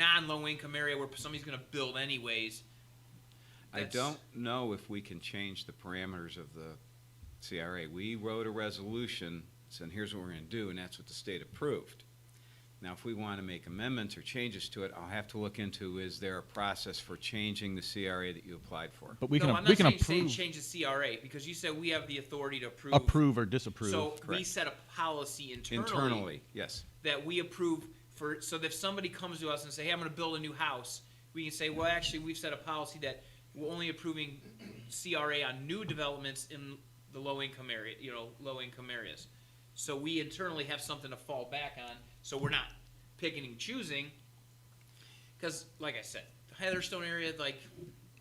non-low income area where somebody's going to build anyways. I That's- don't know if we can change the parameters of the CRA. We wrote a resolution saying, here's what we're gonna do, and that's what the state approved. Now, if we wanna make amendments or changes to it, I'll have to look into, is there a process for changing the CRA that you applied for? But we no, can I'm not we can saying, saying approve change the CRA because you said we have the authority to approve. approve or disapprove. So we correct. set a policy internally, Internally, yes. that we approve for. So that if somebody comes to us and say, "Hey, I'm going to build a new house," we can say, "Well, actually, we've set a policy that we're only approving CRA on new developments in the low income area, you know, low income areas." So we internally have something to fall back on, so we're not picking and choosing. Because, like I said, the Heatherstone area, like,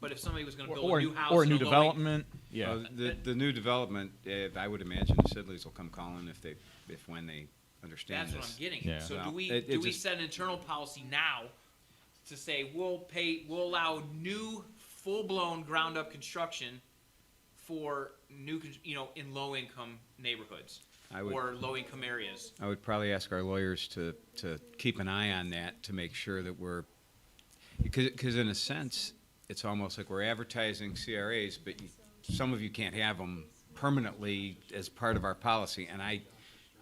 but if somebody was going to or, build or, a new house or a in new low in- development. Yeah. Uh, The, the new development, eh, I would imagine the Sidleys will come calling if they, if when they understand That's this. what I'm getting. Yeah. at. So do Well, we it- it do we just- set an internal policy now to say we'll pay we'll allow new full blown ground up construction for new con- you know in low income neighborhoods I would- or low income areas? I would probably ask our lawyers to, to keep an eye on that to make sure that we're, because, because in a sense, it's almost like we're advertising CRAs, but you, some of you can't have them permanently as part of our policy, and I,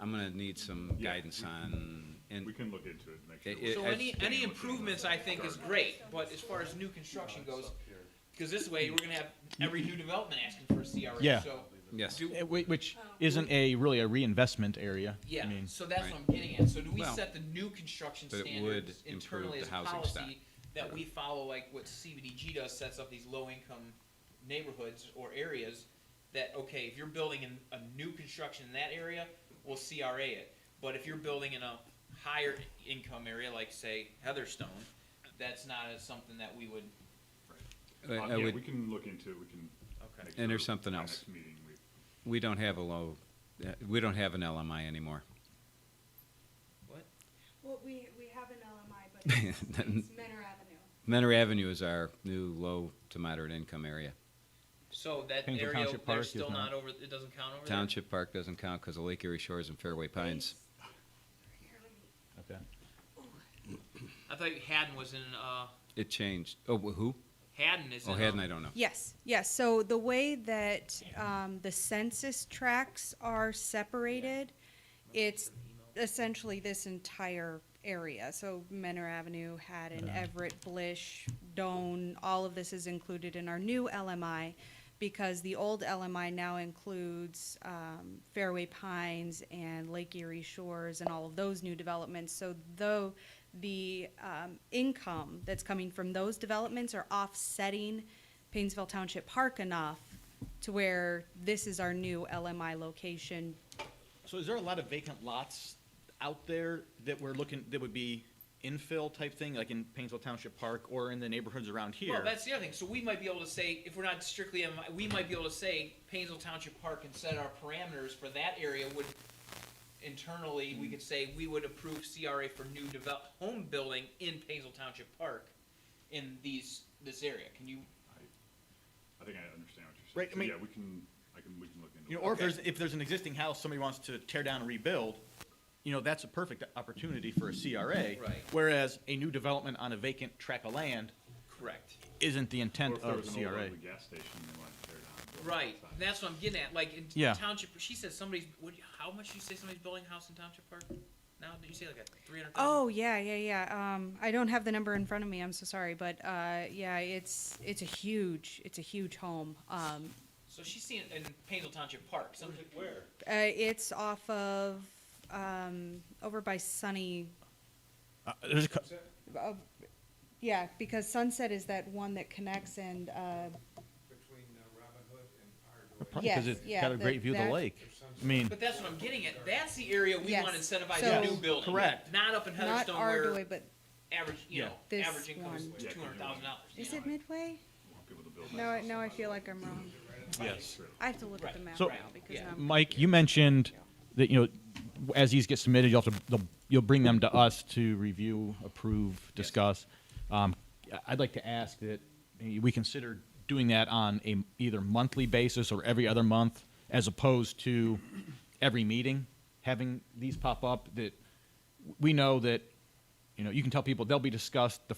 I'm gonna need some Yeah. guidance on, We and, can look into it, and make It- it- sure. So I- any any improvements I think is great, but as far as new construction goes, because this way we're gonna have every new development asking for a CRA. Yeah. So yes. do, Eh, whi- which Oh, isn't a really a reinvestment area. Yeah, I mean, so that's right. what I'm getting at. So do we Well, set the new construction but it would standards improve internally the as a housing policy stock. that we follow, like what CBDG does, sets up these low-income neighborhoods or areas that okay, if you're building in a new construction in that area, we'll CRA it. But if you're building in a higher income area, like say Heatherstone, that's not as something that we would. I- Uh, I Yeah, would- we can look into it, we can. Okay. make And there's sure something by else. next meeting we- we don't have a low, eh, we don't have an LMI anymore. Well, we, we have an LMI, but it's it's Menor Avenue. Menor Avenue is our new low to moderate income area. Oh, So that Painesville area, Township Park they're is still not- not over. It doesn't count over there? Township Park doesn't count because of Lake Erie Shores and Fairway Pines. okay. I thought Haddon was in. Uh, It changed. Oh, wh- who? Haddon is Oh, in. Haddon, um, I don't know. Yes, yes, so the way that, um, the census tracts are separated, it's essentially this entire area, so Menor Avenue, Haddon, Everett, Blish, Doan, all of this is included in our new LMI, because the old LMI now includes, um, Fairway Pines and Lake Erie Shores and all of those new developments, so though the, um, income that's coming from those developments are offsetting Painesville Township Park enough to where this is our new LMI location. So is there a lot of vacant lots out there that we're looking, that would be infill type thing, like in Painesville Township Park or in the neighborhoods around here? Well, that's the other thing. So we might be able to say, if we're not strictly, MI we might be able to say Painesville Township Park and set our parameters for that area would, internally, we could say we would approve CRA for new develop, home building in Painesville Township Park in these, this area. Can you, I think I understand what you're saying. Right, I So, mean- Yeah, we can, I can, we can look into it. You know, or if there's, if there's an existing house somebody wants to tear down and rebuild, you know, that's a perfect opportunity for a CRA. Right. Whereas a new development on a vacant tract of land correct. isn't the Or intent if there of was Oh, an old CRA. ugly gas station they wanted to tear down. and build Right. outside. That's what I'm getting at. Like in Yeah. Township, she says somebody's, what, how much did you say somebody's building a house in Township Park? Now, did you say like a three hundred thousand? Oh, yeah, yeah, yeah. Um, I don't have the number in front of me. I'm so sorry, but, uh, yeah, it's, it's a huge, it's a huge home. Um, So she's seeing it in Painesville Township Park. Something where? uh, it's off of, um, over by Sunny, Uh, there's a, cou- uh, yeah, because Sunset is that one that connects and, uh, between uh, Robin Hood and Ardway. probably because Yes, it's yeah, got a great that- view of the that- lake. I mean, But that's what I'm getting at. That's the area we Yes. want to incentivize So- new building. Correct. Not up in not Heatherstone where Ardway, but average, you Yeah. know, This average income one. is Yeah, two hundred thousand dollars. is it Midway? Want people to build No, I- houses no, I outside. feel like I'm wrong. Yes. I have to look at Right. the map So- now because Yeah. now I'm. Mike, you mentioned that you know as these get submitted, you'll have to they'll- you'll bring them to us to review, approve, discuss. Um, I'd like to ask that we consider doing that on a either monthly basis or every other month, as opposed to every meeting having these pop up. That we know that You know, you can tell people they'll be discussed the